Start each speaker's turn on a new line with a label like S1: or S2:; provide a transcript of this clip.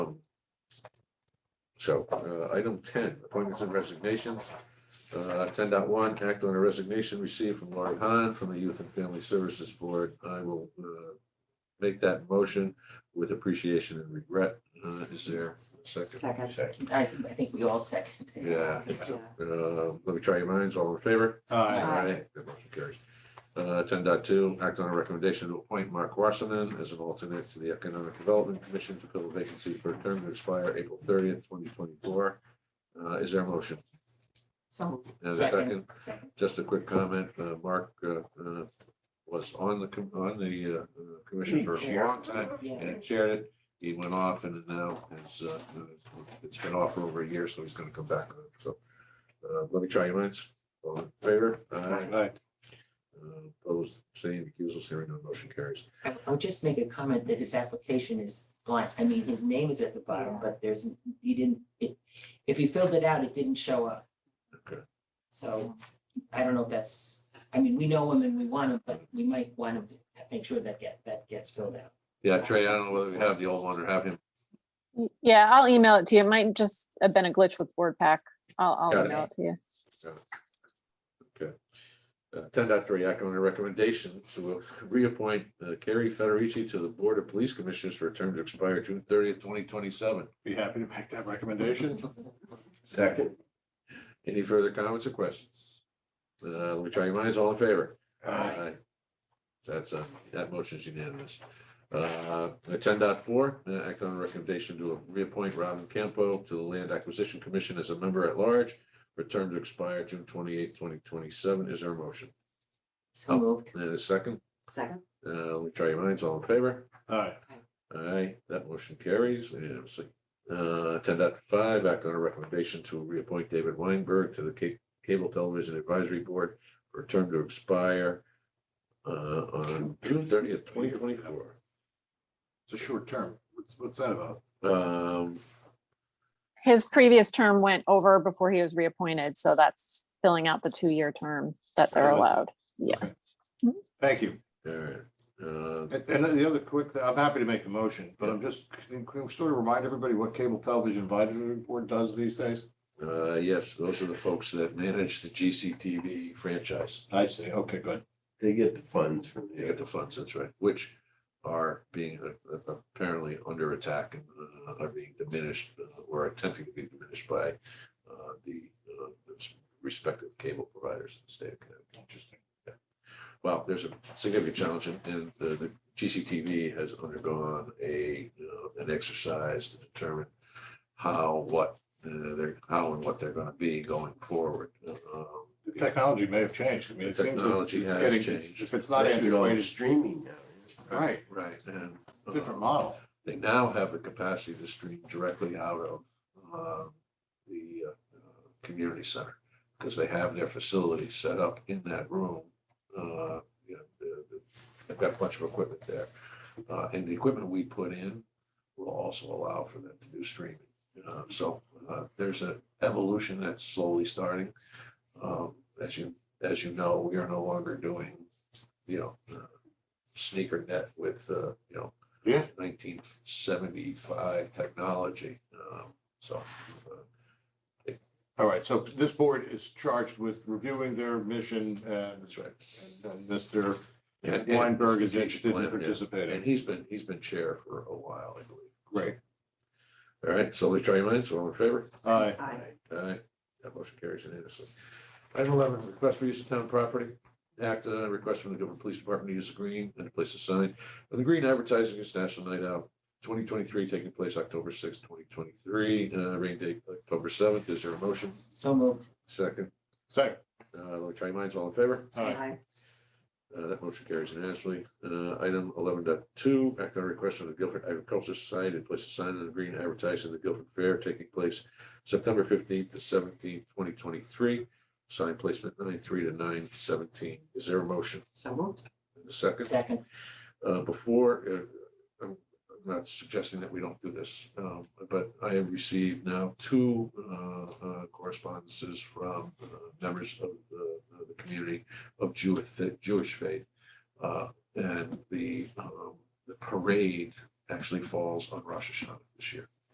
S1: So, uh, item ten, appointments and resignations. Uh, ten dot one, act on a resignation received from Laurie Hahn from the Youth and Family Services Board. I will, uh, make that motion with appreciation and regret. Uh, is there a second?
S2: Second,
S3: Second.
S2: I, I think we all second.
S1: Yeah. Uh, let me try your minds. All in favor?
S2: Aye.
S3: Aye.
S1: That motion carries. Uh, ten act on a recommendation to appoint Mark Wasserman as an alternate to the Economic Development Commission to fill a vacancy for a term to expire April thirtieth, twenty twenty-four. Uh, is there a motion?
S2: So.
S1: And a second,
S2: Second.
S1: just a quick comment, uh, Mark, uh, uh, was on the, com- on the, uh, uh, commission for a long time and
S2: Yeah,
S1: had chaired it. He went off and now it's, uh, uh, it's been off for over a year, so he's gonna come back. So, uh, let me try your minds. All in favor? Aye.
S3: Aye.
S1: Uh, Opposed, abstaining, recusals, hearing no motion carries.
S2: I- I'll just make a comment that his application is blank. I mean, his name is at the bottom, but there's, he didn't, it, if he filled it out, it didn't show up.
S1: Okay.
S2: So I don't know if that's, I mean, we know him and we want him, but we might want him to make sure that get, that gets filled out.
S1: Yeah, Trey, I don't know whether we have the old one or have him.
S4: Y- Yeah, I'll email it to you. It might just have been a glitch with Word Pack. I'll,
S1: Got
S4: I'll
S1: it.
S4: email it to you.
S1: Uh, Ten dot three, act on a recommendation to reappoint uh, Carrie Federici to the Board of Police Commissioners for a term to expire June thirtieth, twenty twenty-seven.
S3: Be happy to make that recommendation. Second.
S1: Any further comments or questions? Uh, let me try your minds, all in favor?
S3: Aye.
S1: That's, uh, that motion is unanimous. Uh, ten dot four, uh, act on a recommendation to reappoint Robin Campo to the Land Acquisition Commission as a member at large for a term to expire June twenty-eighth, twenty twenty-seven. Is there a motion? Oh.
S2: So moved.
S1: And a second,
S2: Second.
S1: uh, let me try your minds, all in favor?
S3: Aye.
S1: Aye, that motion carries unanimously. Uh, ten dot five, act on a recommendation to reappoint David Weinberg to the Ca- Cable Television Advisory Board for a term to expire uh, on June thirtieth, twenty twenty-four.
S3: It's a short term. What's, what's that about?
S1: Um,
S4: His previous term went over before he was reappointed, so that's filling out the two-year term that they're
S3: Really?
S4: allowed.
S3: Thank you.
S1: all right, uh,
S3: And, and the other quick, thing- I'm happy to make the motion, but I'm just, can can we sort of remind everybody what cable television advisory board does these days?
S1: uh, yes, those are the folks that manage the GCTV franchise.
S3: I see. Okay, good.
S5: They get the funds from
S1: You
S5: the,
S1: get the funds, that's right, which are being uh, uh, apparently under attack and uh, are being diminished uh, or attempting to be diminished by uh, the uh, its respective cable providers in the state of Connecticut.
S3: Interesting.
S1: Well, there's a significant challenge and- and the the GCTV has undergone a, uh, an exercise to determine how, what, uh, they're, how and what they're going to be going forward. Um,
S3: The technology may have changed. I mean, it seems like
S1: Technology
S3: it's
S1: has
S3: getting,
S1: changed.
S3: if it's not
S5: they should go
S3: antiquated,
S5: streaming now.
S3: right,
S1: Right. and, uh,
S3: different model.
S1: They now have the capacity to stream directly out of um, the uh, uh, community center because they have their facility set up in that room. Uh, you know, the- the- They've got a bunch of equipment there. Uh, And the equipment we put in will also allow for them to do streaming. Uh, So uh, there's an evolution that's slowly starting. Um, As you, as you know, we are no longer doing, you know, uh, sneaker net with, uh, you know,
S3: Yeah.
S1: nineteen seventy-five technology. Um, So uh,
S3: All right, so this board is charged with reviewing their mission and
S1: that's right.
S3: and Mr.
S1: And- and
S3: Weinberg is
S1: strategic plan,
S3: interested in
S1: yeah. And
S3: participating.
S1: he's been, he's been chair for a while, I believe.
S3: Great.
S1: All right, so we try your minds, all in favor?
S3: Aye.
S1: Aye, that motion carries unanimously. Item eleven, request for use of town property. Act, uh, request from the Guilford Police Department to use the green and to place a sign of the green advertising its National Night Out twenty twenty-three, taking place October sixth, twenty twenty-three, uh, rain date October seventh. Is there a motion?
S2: So moved.
S1: Second,
S3: Second.
S1: uh, let me try your minds, all in favor?
S3: Aye.
S1: Uh, that motion carries unanimously. Uh, item 11.2. act on a request from the Guilford Agricultural Society to place a sign on the green advertising the Guilford Fair taking place September fifteenth to seventeenth, twenty twenty-three. Sign placement nine three to nine seventeen. Is there a motion?
S2: So moved.
S1: A Second?
S2: Second.
S1: uh, before, uh, I'm I'm not suggesting that we don't do this, um, but I have received now two uh, uh, correspondences from uh, members of the, of the community of Jewish, Jewish faith. Uh, And the, um, the parade actually falls on Rosh Hashanah this year.